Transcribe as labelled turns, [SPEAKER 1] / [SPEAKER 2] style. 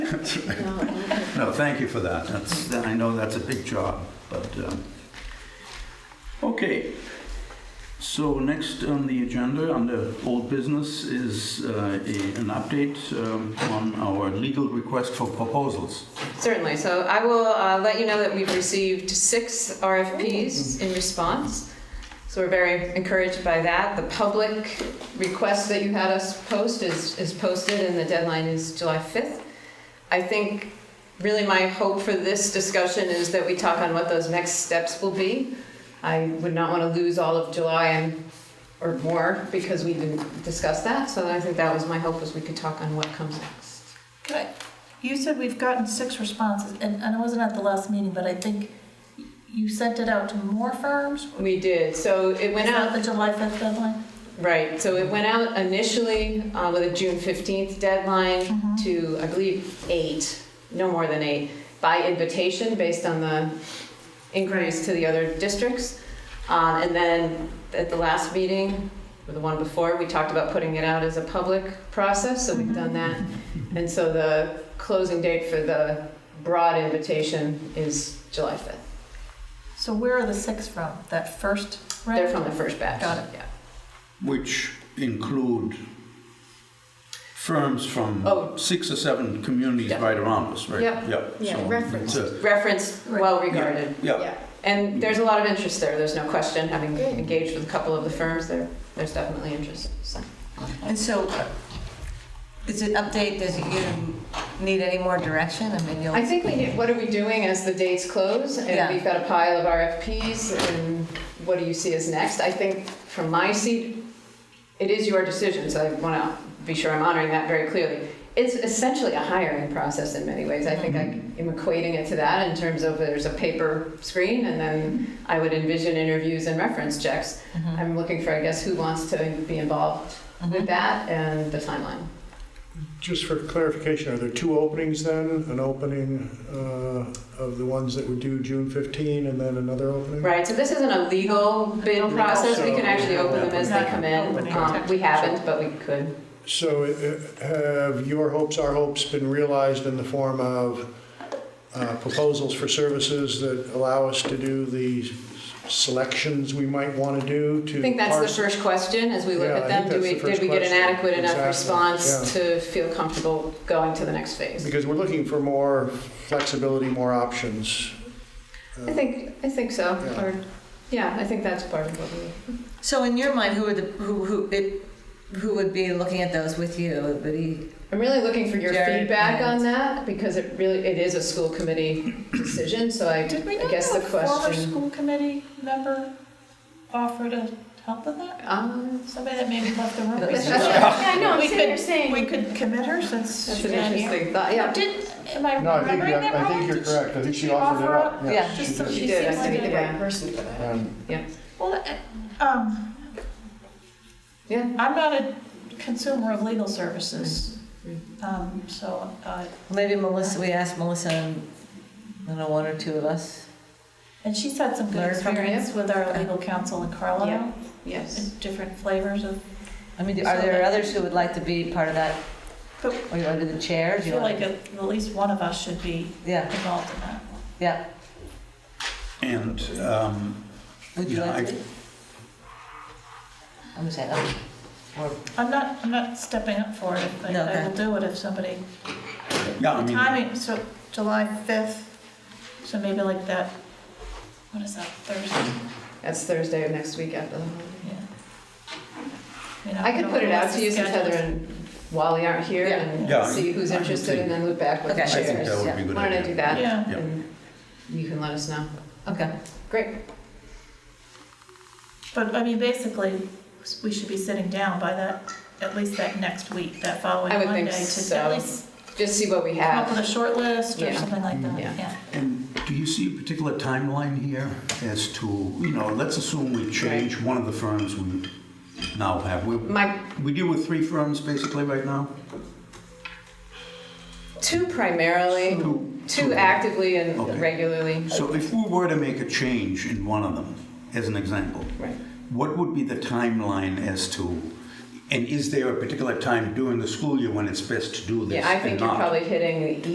[SPEAKER 1] No, okay.
[SPEAKER 2] No, thank you for that. That's, I know that's a big job, but, um, okay. So next on the agenda, under old business, is uh, a- an update um, on our legal request for proposals.
[SPEAKER 3] Certainly. So I will uh, let you know that we've received six RFPs in response. So we're very encouraged by that. The public request that you had us post is, is posted, and the deadline is July 5th. I think really my hope for this discussion is that we talk on what those next steps will be. I would not want to lose all of July and or more because we didn't discuss that. So I think that was my hope was we could talk on what comes next.
[SPEAKER 4] Right. You said we've gotten six responses, and, and I wasn't at the last meeting, but I think y- you sent it out to more firms?
[SPEAKER 3] We did. So it went
[SPEAKER 4] Is
[SPEAKER 3] out.
[SPEAKER 4] that the July 5th deadline?
[SPEAKER 3] Right, so it went out initially uh, with a June 15th
[SPEAKER 1] Mm-hmm.
[SPEAKER 3] deadline to, I believe, eight, no more than eight, by invitation based on the inquiries to the other districts. Um, And then at the last meeting, or the one before, we talked about putting it out as a public process, so we've done that. And so the closing date for the broad invitation is July 5th.
[SPEAKER 4] So where are the six from? That first
[SPEAKER 3] They're
[SPEAKER 4] round?
[SPEAKER 3] from the first batch.
[SPEAKER 4] Got it.
[SPEAKER 3] Yeah.
[SPEAKER 2] which include firms
[SPEAKER 3] Oh.
[SPEAKER 2] from six or seven communities
[SPEAKER 3] Yeah.
[SPEAKER 2] right around us, right?
[SPEAKER 3] Yeah.
[SPEAKER 2] Yep.
[SPEAKER 1] Yeah,
[SPEAKER 2] So
[SPEAKER 1] referenced.
[SPEAKER 2] it's a-
[SPEAKER 3] Referenced, well regarded.
[SPEAKER 2] Yeah,
[SPEAKER 3] And there's a lot of interest there, there's no question, having engaged with a couple of the firms, there, there's definitely interest, so.
[SPEAKER 1] And so, uh, is it update, does it, you need any more direction? I mean, you'll.
[SPEAKER 3] I think we, need- what are we doing as the dates close?
[SPEAKER 1] Yeah.
[SPEAKER 3] And we've got a pile of RFPs, and what do you see as next? I think from my seat, it is your decision, so I want to be sure I'm honoring that very clearly. It's essentially a hiring process in many ways. I think I am equating it to that in terms of there's a paper screen, and then I would envision interviews and reference checks.
[SPEAKER 1] Mm-hmm.
[SPEAKER 3] I'm looking for, I guess, who wants to be involved
[SPEAKER 4] Mm-hmm.
[SPEAKER 3] with that and the timeline.
[SPEAKER 5] Just for clarification, are there two openings then? An opening uh, of the ones that were due June 15 and then another opening?
[SPEAKER 3] Right, so this isn't a legal bid
[SPEAKER 4] Open
[SPEAKER 3] process, we
[SPEAKER 5] also-
[SPEAKER 3] can actually open them as they come in.
[SPEAKER 4] Opening.
[SPEAKER 3] Um, We haven't, but we could.
[SPEAKER 5] So uh, have your hopes, our hopes been realized in the form of uh, proposals for services that allow us to do the selections we might want to do to?
[SPEAKER 3] I think that's the
[SPEAKER 5] parse-
[SPEAKER 3] first question, as we look
[SPEAKER 5] Yeah,
[SPEAKER 3] at
[SPEAKER 5] I
[SPEAKER 3] them,
[SPEAKER 5] think
[SPEAKER 3] do
[SPEAKER 5] that's
[SPEAKER 3] we,
[SPEAKER 5] the
[SPEAKER 3] did
[SPEAKER 5] first
[SPEAKER 3] we get an
[SPEAKER 5] question.
[SPEAKER 3] adequate enough
[SPEAKER 5] Exactly,
[SPEAKER 3] response to feel comfortable going to the next phase?
[SPEAKER 5] Because we're looking for more flexibility, more options.
[SPEAKER 3] I think, I think so,
[SPEAKER 5] Yeah.
[SPEAKER 3] or, yeah, I think that's part of what we.
[SPEAKER 1] So in your mind, who would, the- who, who, it, who would be looking at those with you? It Would be,
[SPEAKER 3] I'm really looking for your
[SPEAKER 1] Jared,
[SPEAKER 3] feedback
[SPEAKER 1] yeah.
[SPEAKER 3] on that, because it really, it is a school committee decision, so I,
[SPEAKER 4] Did we
[SPEAKER 3] I
[SPEAKER 4] not
[SPEAKER 3] guess
[SPEAKER 4] have
[SPEAKER 3] the
[SPEAKER 4] a former
[SPEAKER 3] question.
[SPEAKER 4] school committee member offer to help with that?
[SPEAKER 3] Um,
[SPEAKER 4] Somebody that maybe left the room?
[SPEAKER 1] Yeah,
[SPEAKER 3] I
[SPEAKER 4] know, I'm sitting saying. We could commit her since.
[SPEAKER 3] That's an
[SPEAKER 4] she's not here.
[SPEAKER 3] interesting thought, yeah.
[SPEAKER 4] Did, am I
[SPEAKER 5] No, I think,
[SPEAKER 4] remembering that
[SPEAKER 5] I
[SPEAKER 4] wrong?
[SPEAKER 5] think you're
[SPEAKER 4] Did she-
[SPEAKER 5] correct. I think
[SPEAKER 4] did
[SPEAKER 5] she offered it up.
[SPEAKER 1] Yeah, Yeah,
[SPEAKER 4] Just so
[SPEAKER 3] She
[SPEAKER 4] she
[SPEAKER 3] did, I
[SPEAKER 4] seems like
[SPEAKER 3] think,
[SPEAKER 4] a
[SPEAKER 3] yeah,
[SPEAKER 5] Um,
[SPEAKER 4] Well, uh, um,
[SPEAKER 3] yeah,
[SPEAKER 4] I'm not a consumer of legal services, um, so, uh,
[SPEAKER 1] maybe Melissa, we asked Melissa, and, I don't know, one or two of us.
[SPEAKER 4] and she's had some good
[SPEAKER 1] Learn from her.
[SPEAKER 4] experience with our legal counsel in Carlisle,
[SPEAKER 3] yes.
[SPEAKER 4] and different flavors of,
[SPEAKER 1] I mean, are there others who would like to be part of that?
[SPEAKER 4] But-
[SPEAKER 1] Or you want to do the chair?
[SPEAKER 4] I
[SPEAKER 1] Do you
[SPEAKER 4] feel
[SPEAKER 1] want
[SPEAKER 4] like at at least one of us should be
[SPEAKER 1] Yeah,
[SPEAKER 4] involved in that.
[SPEAKER 1] yeah.
[SPEAKER 2] and, um,
[SPEAKER 1] Would you
[SPEAKER 2] Yeah,
[SPEAKER 1] like to
[SPEAKER 2] I-
[SPEAKER 1] be? I'm just saying, um, or-
[SPEAKER 4] I'm not, I'm not stepping up for it, but
[SPEAKER 1] No,
[SPEAKER 4] I
[SPEAKER 1] okay.
[SPEAKER 4] will do it if somebody,
[SPEAKER 2] yeah, I
[SPEAKER 4] the
[SPEAKER 2] mean,
[SPEAKER 4] timing, so July 5th, so maybe like that, what is that, Thursday?
[SPEAKER 3] That's Thursday of next week after the holiday.
[SPEAKER 4] Yeah. mean,
[SPEAKER 3] I could
[SPEAKER 4] don't
[SPEAKER 3] put
[SPEAKER 4] know
[SPEAKER 3] it out
[SPEAKER 4] what's
[SPEAKER 3] to you since
[SPEAKER 4] scheduled.
[SPEAKER 3] Heather and Wally aren't here
[SPEAKER 1] Yeah.
[SPEAKER 2] Yeah,
[SPEAKER 3] and see who's
[SPEAKER 2] I would
[SPEAKER 3] interested
[SPEAKER 2] think-
[SPEAKER 3] and then look back with the
[SPEAKER 1] Okay.
[SPEAKER 2] I
[SPEAKER 1] shares,
[SPEAKER 2] think that
[SPEAKER 3] chairs.
[SPEAKER 2] would be a good
[SPEAKER 3] Why don't I do
[SPEAKER 2] idea.
[SPEAKER 3] that?
[SPEAKER 4] Yeah.
[SPEAKER 2] Yeah.
[SPEAKER 3] And you can let us know.
[SPEAKER 1] okay.
[SPEAKER 3] Great.
[SPEAKER 4] But, I mean, basically, we should be sitting down by that, at least that next week, that following
[SPEAKER 3] I would
[SPEAKER 4] Monday,
[SPEAKER 3] think
[SPEAKER 4] to
[SPEAKER 3] so.
[SPEAKER 4] at least
[SPEAKER 3] Just see what we
[SPEAKER 4] come up with
[SPEAKER 3] have.
[SPEAKER 4] a short list or
[SPEAKER 3] Yeah. Mm,
[SPEAKER 4] something like that,
[SPEAKER 3] Yeah.
[SPEAKER 4] yeah.
[SPEAKER 2] And do you see a particular timeline here as to, you know, let's assume we change one of the firms we now have. We,
[SPEAKER 3] My
[SPEAKER 2] we deal with three firms basically right now?
[SPEAKER 3] two primarily,
[SPEAKER 2] Two.
[SPEAKER 3] two actively
[SPEAKER 2] Okay.
[SPEAKER 3] and regularly.
[SPEAKER 2] So if we were to make a change in one of them, as an example,
[SPEAKER 3] Right.
[SPEAKER 2] What would be the timeline as to, and is there a particular time during the school year when it's best to do this
[SPEAKER 3] Yeah, I think
[SPEAKER 2] and
[SPEAKER 3] you're
[SPEAKER 2] not?
[SPEAKER 3] probably hitting the